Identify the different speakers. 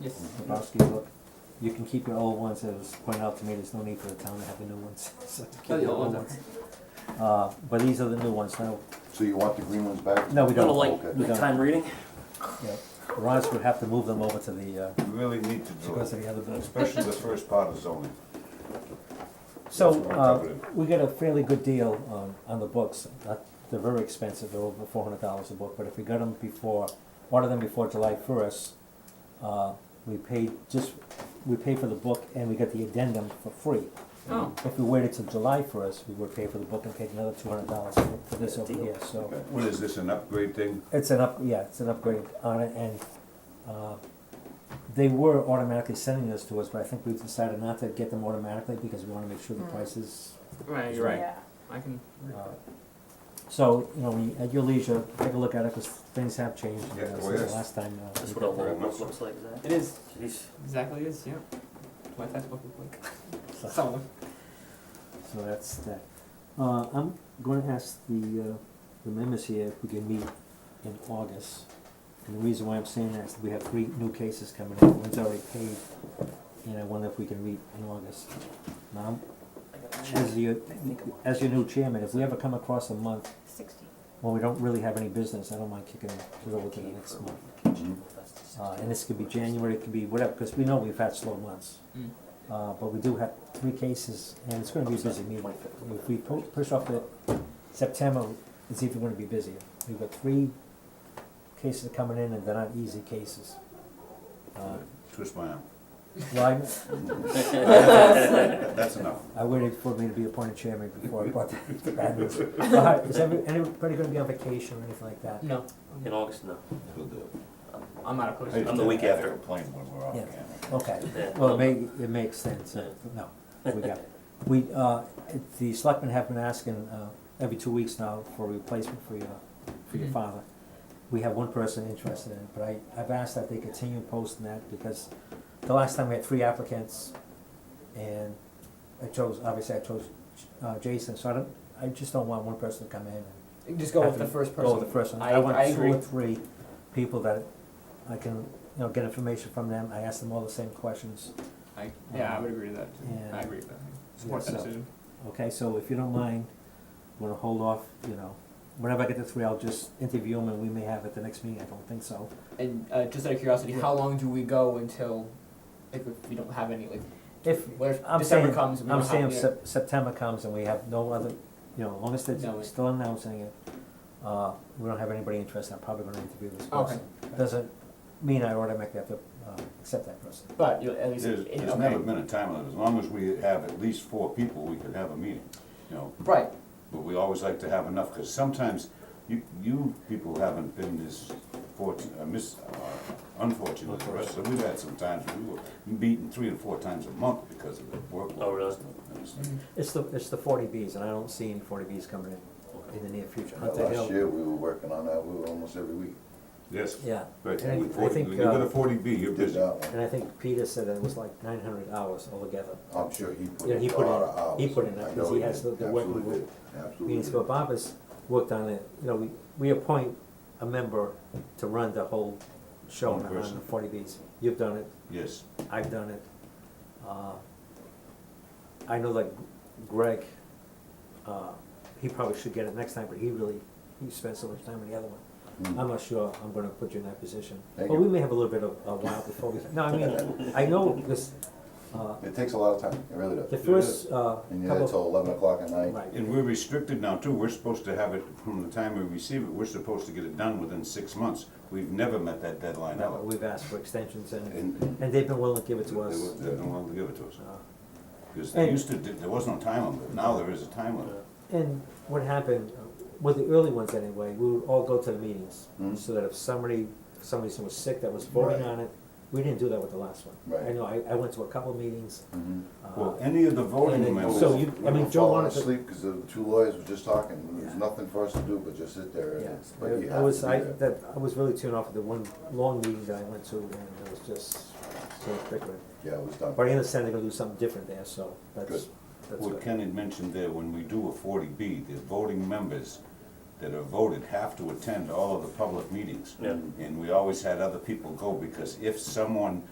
Speaker 1: Yes.
Speaker 2: Lebowski book. You can keep your old ones, it was pointed out to me, there's no need for the town to have the new ones, so keep
Speaker 1: Oh,
Speaker 2: your
Speaker 1: yeah,
Speaker 2: old
Speaker 1: well,
Speaker 2: ones. Uh, but these are the new ones, no,
Speaker 3: So you want the green ones back?
Speaker 2: no, we don't.
Speaker 1: Little like
Speaker 3: Okay.
Speaker 1: nighttime reading.
Speaker 2: Yeah. Ross would have to move them over to the, uh,
Speaker 4: You really need to
Speaker 2: she
Speaker 4: do
Speaker 2: goes to
Speaker 4: it,
Speaker 2: the other building.
Speaker 4: especially the first part of zoning.
Speaker 2: So,
Speaker 4: That's what I'm
Speaker 2: uh,
Speaker 4: talking about.
Speaker 2: we got a fairly good deal on, on the books, Not- they're very expensive, they're over four hundred dollars a book, but if we got them before, order them before July first, uh, we paid just, we pay for the book and we get the addendum for free.
Speaker 1: Oh.
Speaker 2: If we waited till July first, we would pay for the book and paid another two hundred dollars for this over
Speaker 1: Deal.
Speaker 2: here, so.
Speaker 4: What is this, an upgrade thing?
Speaker 2: It's an up, yeah, it's an upgrade on it and, uh, they were automatically sending this to us, but I think we've decided not to get them automatically because we wanna make sure the
Speaker 5: Mm.
Speaker 2: prices
Speaker 1: Right, you're right.
Speaker 5: Yeah,
Speaker 1: I can.
Speaker 2: Uh, So, you know, when you- at your leisure, take a look at it, because things have changed uh,
Speaker 4: Yeah,
Speaker 2: since
Speaker 4: oh,
Speaker 2: the
Speaker 4: yes.
Speaker 2: last time. uh,
Speaker 1: That's what
Speaker 2: we
Speaker 1: a
Speaker 2: did
Speaker 1: little
Speaker 4: very
Speaker 1: book
Speaker 4: much
Speaker 1: looks like. Is that?
Speaker 6: It is.
Speaker 1: Jeez. Exactly is. Yeah. My textbook look
Speaker 2: that.
Speaker 1: like some of them.
Speaker 2: So- So that's that. Uh, I'm gonna ask the, uh, the members here if we can meet in August. And the reason why I'm saying that is that we have three new cases coming in, one's already paid, and I wonder if we can meet in August. Now, I'm- as your, as your new chairman, if we ever come across a month
Speaker 5: sixteen.
Speaker 2: when we don't really have any business, I don't mind kicking it over to the next month. Uh, and this could be January, it could be whatever, because we know we've had slow months.
Speaker 1: Mm.
Speaker 2: Uh, but we do have three cases, and it's gonna be a busy meeting. If we pu- push off the September, it's even gonna be busier. We've got three cases coming in, and they're not easy cases. Uh,
Speaker 4: Twist my arm.
Speaker 2: well,
Speaker 4: That- That's enough.
Speaker 2: I, I waited for me to be appointed chairman before I brought the bad news. Uh, Is every- anybody gonna be on vacation or anything like that?
Speaker 1: No,
Speaker 6: In August, no.
Speaker 4: We'll do it.
Speaker 1: I'm not opposed.
Speaker 4: I
Speaker 1: to
Speaker 6: I'm
Speaker 4: just
Speaker 6: the
Speaker 1: that.
Speaker 6: week
Speaker 4: have to
Speaker 6: after.
Speaker 4: Complain when we're off
Speaker 2: Yeah.
Speaker 4: camera.
Speaker 2: Okay.
Speaker 6: Yeah.
Speaker 2: Well, it may, it makes sense, uh, no, we got, we, uh, it- the selectmen have been asking, uh, every two weeks now for a replacement for your, for your
Speaker 1: Mhm.
Speaker 2: father. We have one person interested in it, but I, I've asked that they continue posting that, because the last time we had three applicants, and I chose, obviously I chose, uh, Jason, so I don't, I just don't want one person to come in and
Speaker 1: Just go
Speaker 2: have
Speaker 1: with
Speaker 2: to
Speaker 1: the first person.
Speaker 2: go with the first one.
Speaker 1: Oh, I,
Speaker 2: I want
Speaker 1: I
Speaker 2: two
Speaker 1: agree.
Speaker 2: or three people that I can, you know, get information from them, I ask them all the same questions.
Speaker 1: I, yeah, I would agree to that. Too.
Speaker 2: Yeah.
Speaker 1: I agree with that. Support
Speaker 2: Yeah,
Speaker 1: that
Speaker 2: so-
Speaker 1: decision.
Speaker 2: Okay, so if you don't mind, I'm gonna hold off, you know, whenever I get the three, I'll just interview them and we may have at the next meeting, I don't think so.
Speaker 1: And uh, just out of curiosity,
Speaker 2: Yeah.
Speaker 1: how long do we go until if we don't have any like
Speaker 2: If,
Speaker 1: where
Speaker 2: I'm
Speaker 1: December
Speaker 2: saying,
Speaker 1: comes? We
Speaker 2: I'm
Speaker 1: don't
Speaker 2: saying
Speaker 1: have
Speaker 2: if Sep- September comes and we have no other, you know, as long as
Speaker 1: No, it-
Speaker 2: they're still announcing it, uh, we don't have anybody interested, I'm probably gonna interview this
Speaker 1: Okay.
Speaker 2: person. Doesn't mean I automatically have to, uh, accept that person.
Speaker 1: but you know, at least
Speaker 4: There's,
Speaker 1: it-
Speaker 4: there's
Speaker 1: okay.
Speaker 4: never been a time, that as long as we have at least four people, we could have a meeting, you know?
Speaker 1: right.
Speaker 4: But we always like to have enough, because sometimes you, you people haven't been this fortunate, uh, mis, uh, unfortunate as the rest. So we've had some times when we were beaten three and four times a month because of the workload.
Speaker 6: Oh, really?
Speaker 4: And it's-
Speaker 2: It's the, it's the forty Bs, and I don't see any forty Bs coming in, in the near future.
Speaker 3: That
Speaker 2: Hunter
Speaker 3: Last
Speaker 2: Hill-
Speaker 3: year, we were working on that, we were almost every week,
Speaker 4: Yes,
Speaker 2: Yeah,
Speaker 4: right,
Speaker 2: And I-
Speaker 4: with
Speaker 2: I
Speaker 4: 40
Speaker 2: think,
Speaker 4: when you go
Speaker 2: uh,
Speaker 4: to forty B, you're
Speaker 3: did
Speaker 4: busy.
Speaker 3: that one.
Speaker 2: and I think Peter said that it was like nine hundred hours altogether.
Speaker 3: I'm sure he put
Speaker 2: Yeah, he
Speaker 3: in a
Speaker 2: put
Speaker 3: lot
Speaker 2: in-
Speaker 3: of hours.
Speaker 2: he put in
Speaker 3: I
Speaker 2: that,
Speaker 3: know
Speaker 2: 'cause he
Speaker 3: he
Speaker 2: has
Speaker 3: did.
Speaker 2: the- the working
Speaker 3: Absolutely
Speaker 2: group.
Speaker 3: did.
Speaker 2: meetings,
Speaker 3: Absolutely.
Speaker 2: but Bob has worked on it, you know, we, we appoint a member to run the whole show
Speaker 4: One
Speaker 2: on
Speaker 4: person.
Speaker 2: the forty Bs. You've done it,
Speaker 4: Yes,
Speaker 2: I've done it. Uh, I know like Greg, uh, he probably should get it next time, but he really, he spent so much time on the other one.
Speaker 3: Mm.
Speaker 2: I'm not sure I'm gonna put you in that position.
Speaker 3: Thank
Speaker 2: But
Speaker 3: you.
Speaker 2: we may have a little bit of a while before we, no, I mean, I know this, uh,
Speaker 3: Mm. It takes a lot of time, it really
Speaker 2: the
Speaker 3: does.
Speaker 2: first, uh,
Speaker 3: And you had
Speaker 2: couple,
Speaker 3: till eleven o'clock at night.
Speaker 2: right,
Speaker 4: and we're restricted now too, we're supposed to have it from the time we receive it, we're supposed to get it done within six months. We've never met that deadline
Speaker 2: no,
Speaker 4: ever.
Speaker 2: we've asked for extensions and,
Speaker 4: And
Speaker 2: and they've been willing to give it
Speaker 4: they
Speaker 2: to us.
Speaker 4: won't- they don't want to give it to us,
Speaker 2: Uh,
Speaker 4: because they
Speaker 2: And-
Speaker 4: used to, there was no time limit, now there is a time limit.
Speaker 2: And what happened, uh, with the early ones anyway, we would all go to the meetings,
Speaker 3: Mhm.
Speaker 2: so that if somebody, for some reason was sick that was voting
Speaker 3: Right.
Speaker 2: on it, we didn't do that with the last one. I
Speaker 3: Right.
Speaker 2: know, I, I went to a couple of meetings,
Speaker 3: Mhm.
Speaker 2: uh,
Speaker 4: Well, any of the
Speaker 2: And
Speaker 4: voting
Speaker 2: then-
Speaker 4: members.
Speaker 2: so you- I
Speaker 3: We
Speaker 2: mean,
Speaker 3: were
Speaker 2: Joe
Speaker 3: falling
Speaker 2: wanted to-
Speaker 3: asleep because the two lawyers were just talking, there was
Speaker 2: Yeah.
Speaker 3: nothing for us to do but just sit there,
Speaker 2: yeah,
Speaker 3: and- but you
Speaker 2: I- I
Speaker 3: have
Speaker 2: was,
Speaker 3: to
Speaker 2: I,
Speaker 3: be there.
Speaker 2: that, I was really tuned off at the one long meeting that I went to, and it was just so frequent.
Speaker 3: Yeah, it was done.
Speaker 2: But I understand they're gonna do something different there, so that's,
Speaker 3: Good.
Speaker 2: that's
Speaker 4: What
Speaker 2: good.
Speaker 4: Ken had mentioned there, when we do a forty B, the voting members that are voted have to attend all of the public meetings.
Speaker 6: Yeah.
Speaker 4: And we always had other people go, because if someone